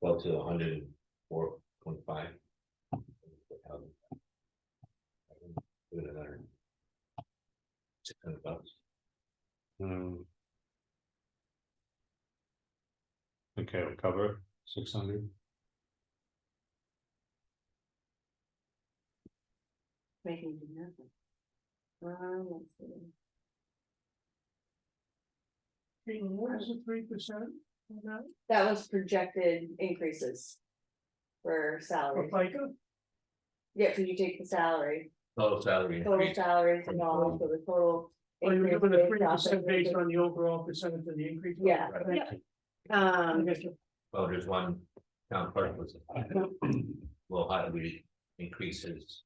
well to hundred and four point five. Doing another. Six hundred bucks. Hmm. Okay, we'll cover six hundred. Making it happen. Um, let's see. What is it, three percent? That was projected increases. For For salary, FICA? yeah, cause you take the salary, Total salary total increase, salaries and all, so the total. Or Oh, you're increase giving a based three off percent of based the- on the overall percentage of the increase? Yeah. Okay. I Um, guess you- well, there's one town clerk was, well, how do we increase his?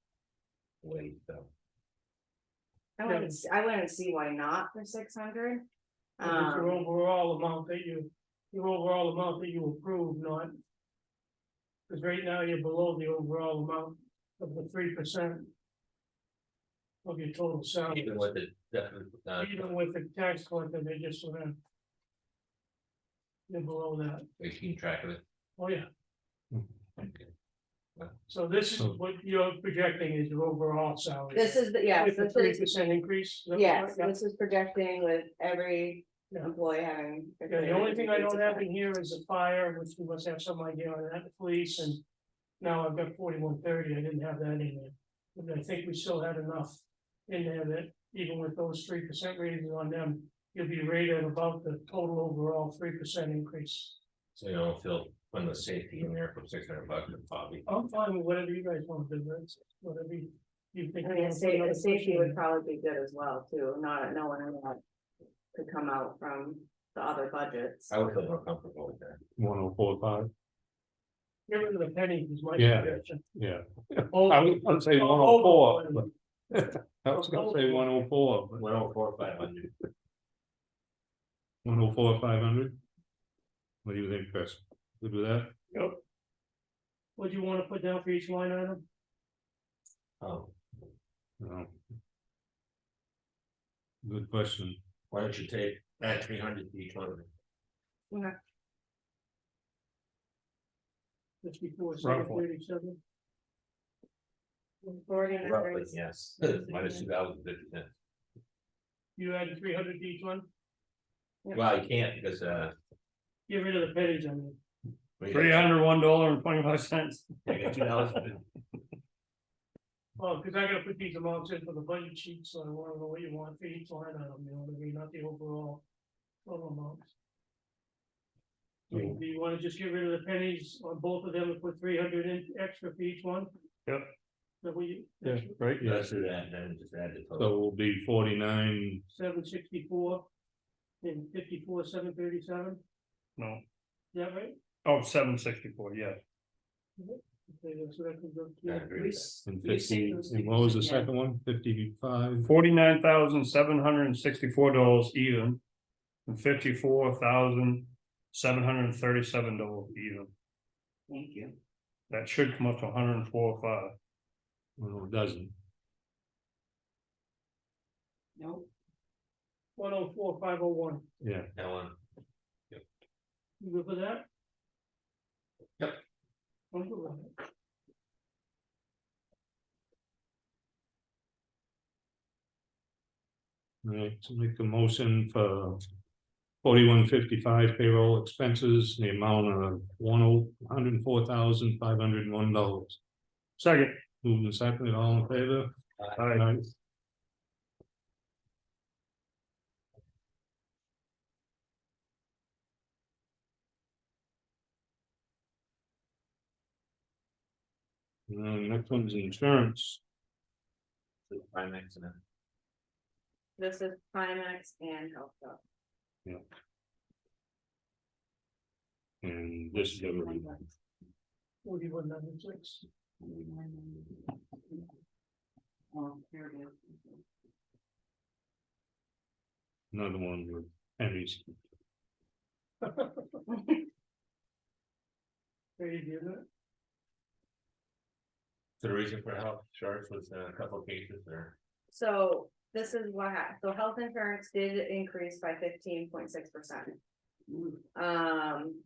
Wage, so. I wouldn't, s- I wouldn't see why not for six hundred. if it's Your Um, overall amount that you, your overall amount that you approve, not. Cause right now you're below the overall amount of the three percent. Of your total salary, Even with the, definite, uh, even with the tax collector, they just sort of. They're below that, we keep track of it. oh yeah. Okay. So this is So- what you're projecting is your overall salary. this is, the yes, With a this three is, percent increase. is that yes, correct? Yeah. this is projecting with every Yeah. employee having. a Yeah, the only thing I don't have different- in here is the fire, which we must have some idea on that, the police and. Now I've got forty-one thirty, I didn't have that in there, but I think we still had enough in there that even with those three percent ratings on them. You'll be rated about the total overall three percent increase. So you don't feel, when the safety in there for six hundred bucks, probably. I'm fine with whatever you guys want to do, that's whatever you you think. I you mean, the wanna put safety, another the safety person would in. probably be good as well too, not, no one allowed to come out from the other budgets. I would feel more comfortable with that. One oh four five, Get rid of the penny is my Yeah. suggestion. yeah, I Oh, was gonna say one oh oh, four, but. I was gonna say one oh four, but One oh four, five hundred. one oh four, five hundred. What do you think, Chris? Good with that? What do you wanna put down for each line item? Oh, No. Good question. why don't you take, add three hundred to each one of them? Fifty-four, seven Roughly. thirty-seven? Roughly, Organizers, yes, minus two thousand fifty cents. You added three hundred to each one, Well, you can't because, uh. get rid of the pennies, I mean. hundred, one dollar and twenty-five cents. Well, Well, Oh, cause I gotta put these amounts in for the budget sheet, so I wanna know what you want for each line item, you know, what I mean, not the overall total amounts. Do Hmm. you- do you wanna just get rid of the pennies on both of them and put three hundred in extra for each one? Yep. That we, Yeah, right, yes, Let's do that, and then just add the so total. we'll be forty-nine, seven sixty-four and fifty-four, seven thirty-seven, No, is that right? oh, seven sixty-four, yeah, Okay, so that comes up to- I agree with that. and You said fifty, it was and what was the 50, yeah. second one? Fifty-five? forty-nine thousand seven hundred and sixty-four dollars even. And fifty-four thousand seven hundred and thirty-seven dollars even, thank you. that should come up to hundred and four five. Well, it doesn't. Nope. One oh four, five oh one, Yeah, That one, you good for that? Yep. I'm good with it. right, so make a motion for. Forty-one fifty-five payroll expenses, the amount of one oh, hundred and four thousand, five hundred and one dollars. Second, Moving second, all in favor? Aye. And then next one's insurance. the Primex and then. This is Primex and Health Hub. And this is everybody. Forty-one ninety-six. Oh, here it is. another one with Henry's. There you go. So The reason for health insurance was uh, a couple of cases there. So this is what hap- so health insurance did increase by fifteen point six percent. Um,